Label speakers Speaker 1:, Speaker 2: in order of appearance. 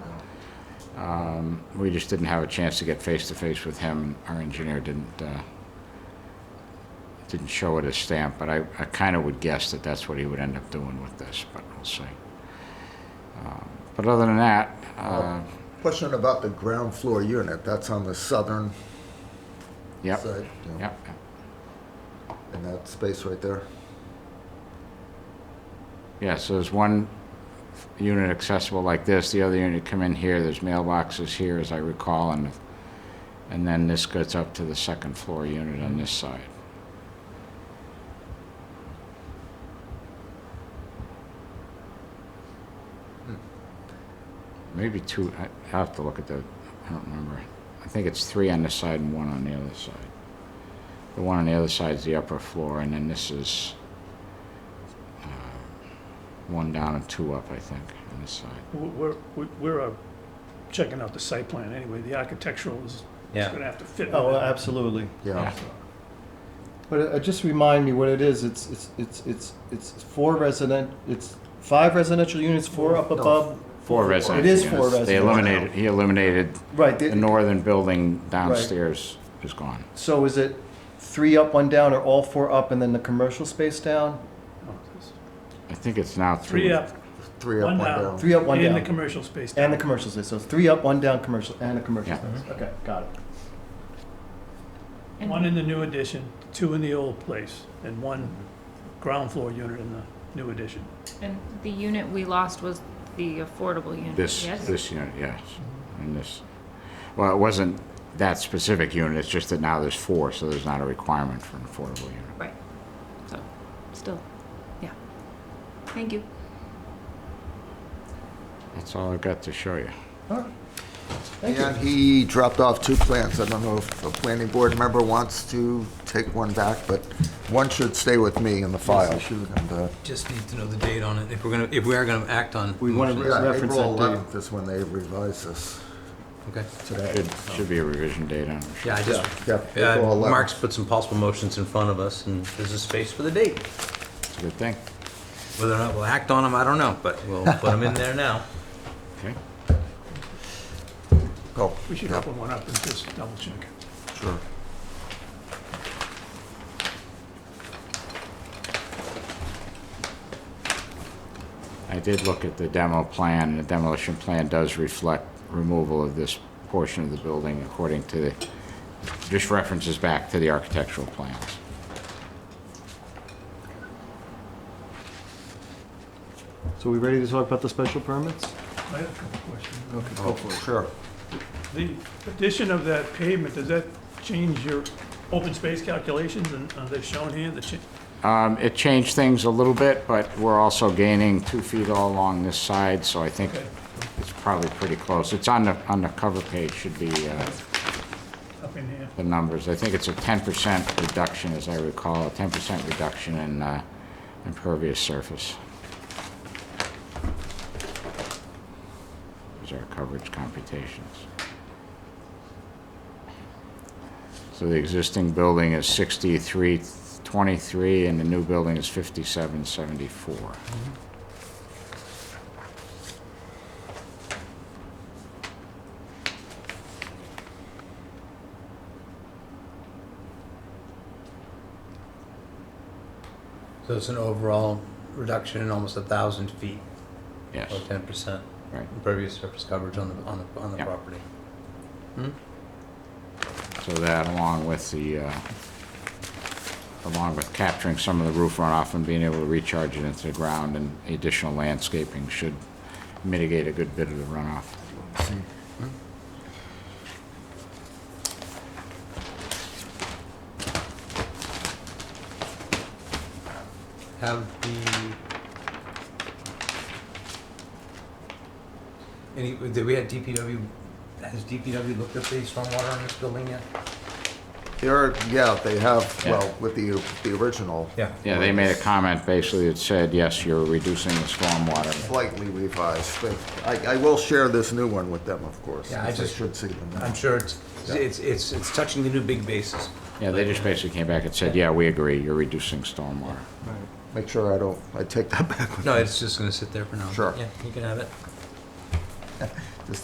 Speaker 1: Um, We just didn't have a chance to get face-to-face with him. Our engineer didn't, uh, didn't show it as stamped, but I, I kind of would guess that that's what he would end up doing with this, but we'll see. Um, But other than that, uh,
Speaker 2: Question about the ground floor unit, that's on the southern
Speaker 1: yep,
Speaker 2: side. you know,
Speaker 1: yep, yep.
Speaker 2: In that space right there.
Speaker 1: Yeah, so there's one f- unit accessible like this, the other unit come in here, there's mailboxes here, as I recall, and, and then this goes up to the second floor unit on this side. Maybe two, I I have to look at the, I don't remember. I think it's three on this side and one on the other side. The one on the other side is the upper floor, and then this is uh, one down and two up, I think, on this side.
Speaker 3: We're, we're- we're uh, checking out the site plan anyway. The architectural is, is
Speaker 4: Yeah.
Speaker 3: gonna have to fit.
Speaker 5: Oh,
Speaker 3: with it.
Speaker 5: absolutely.
Speaker 2: Yeah.
Speaker 5: But uh, just remind me what it is. It's it's it's it's it's four resident. It's five residential units, four up
Speaker 2: No.
Speaker 5: above.
Speaker 1: Four residential
Speaker 5: It is
Speaker 1: units.
Speaker 5: four
Speaker 1: They
Speaker 5: residential.
Speaker 1: eliminated, he eliminated,
Speaker 5: Right.
Speaker 1: the
Speaker 5: the-
Speaker 1: northern building downstairs is gone.
Speaker 5: So is it three up, one down, or all four up and then the commercial space down?
Speaker 3: Oh, it's
Speaker 1: I think it's now three.
Speaker 3: Three up,
Speaker 2: Three up,
Speaker 3: One
Speaker 2: one
Speaker 3: down.
Speaker 2: down.
Speaker 5: Three up, one
Speaker 3: in the
Speaker 5: down,
Speaker 3: commercial space.
Speaker 5: and the commercial space. So it's three up, one down, commercial and a commercial
Speaker 1: Yeah.
Speaker 5: space.
Speaker 3: Mm-hmm.
Speaker 5: Okay, got it.
Speaker 3: One in the new addition, two in the old place, and one ground floor unit in the new addition.
Speaker 6: And the unit we lost was the affordable unit,
Speaker 1: This,
Speaker 6: yes?
Speaker 1: this unit, yes, and this, well, it wasn't that specific unit, it's just that now there's four, so there's not a requirement for an affordable unit.
Speaker 6: Right, so, still, yeah. Thank you.
Speaker 1: That's all I've got to show you.
Speaker 5: All right. Thank you.
Speaker 2: And he dropped off two plants. I don't know if a planning board member wants to take one back, but one should stay with me in the file. And, uh,
Speaker 4: Just need to know the date on it, if we're gonna, if we are gonna act on.
Speaker 5: We want to
Speaker 2: Yeah,
Speaker 5: reference
Speaker 2: April
Speaker 5: that date.
Speaker 2: 11th is when they revised this
Speaker 4: Okay,
Speaker 2: today.
Speaker 1: Should, should be a revision date on it.
Speaker 4: yeah, I just,
Speaker 2: Yeah,
Speaker 4: yeah,
Speaker 2: April 11th.
Speaker 4: Mark's put some possible motions in front of us, and there's a space for the date.
Speaker 1: It's a good thing,
Speaker 4: Whether or not we'll act on them, I don't know, but we'll put them in there now.
Speaker 1: okay?
Speaker 2: Oh,
Speaker 3: We should
Speaker 2: yeah,
Speaker 3: open one up and just double check.
Speaker 2: sure.
Speaker 1: I did look at the demo plan, and the demolition plan does reflect removal of this portion of the building according to, the just references back to the architectural plans.
Speaker 5: So we ready to talk about the special permits?
Speaker 3: I have a couple questions.
Speaker 2: Oh, sure.
Speaker 3: The addition of that pavement, does that change your open space calculations and are they shown here? The cha-
Speaker 1: Um, It changed things a little bit, but we're also gaining two feet all along this side, so I think
Speaker 3: Okay.
Speaker 1: it's probably pretty close. It's on the, on the cover page, should be uh,
Speaker 3: Up in here.
Speaker 1: the numbers. I think it's a 10% reduction, as I recall, a 10% reduction in uh, impervious surface. Those are coverage computations. So the existing building is 6323, and the new building is 5774.
Speaker 4: So it's an overall reduction in almost a thousand feet,
Speaker 1: Yes,
Speaker 4: or ten percent
Speaker 1: right.
Speaker 4: impervious surface coverage on the, on the, on the
Speaker 1: Yeah.
Speaker 4: property.
Speaker 1: So that along with the, uh, along with capturing some of the roof runoff and being able to recharge it into the ground and additional landscaping should mitigate a good bit of the runoff.
Speaker 4: Have the... Any, did we have DPW, has DPW looked at the stormwater in this building yet?
Speaker 2: There are, yeah, they have,
Speaker 1: Yeah.
Speaker 2: well, with the, the original.
Speaker 4: Yeah.
Speaker 1: Yeah, they made a comment basically that said, yes, you're reducing the stormwater.
Speaker 2: Slightly revised, but I, I will share this new one with them, of course.
Speaker 4: Yeah, I
Speaker 2: since they
Speaker 4: just-
Speaker 2: Should see them.
Speaker 4: I'm sure it's, it's, it's, it's touching the new big bases.
Speaker 1: Yeah, they just basically came back and said, yeah, we agree, you're reducing stormwater.
Speaker 2: Make sure I don't, I take that back. with-
Speaker 4: No, it's just gonna sit there for now.
Speaker 2: Sure.
Speaker 4: Yeah, you can have it.